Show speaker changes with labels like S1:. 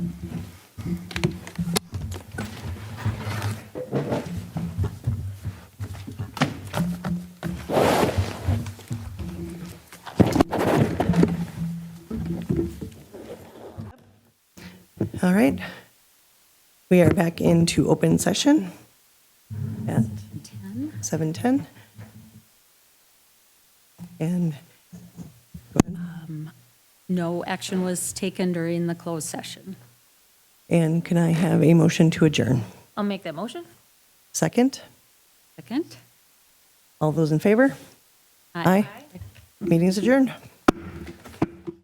S1: All right. We are back into open session at 7:10. And
S2: No action was taken during the closed session.
S1: and can I have a motion to adjourn?
S2: I'll make that motion.
S1: Second?
S2: Second.
S1: All those in favor? Aye. Meeting's adjourned.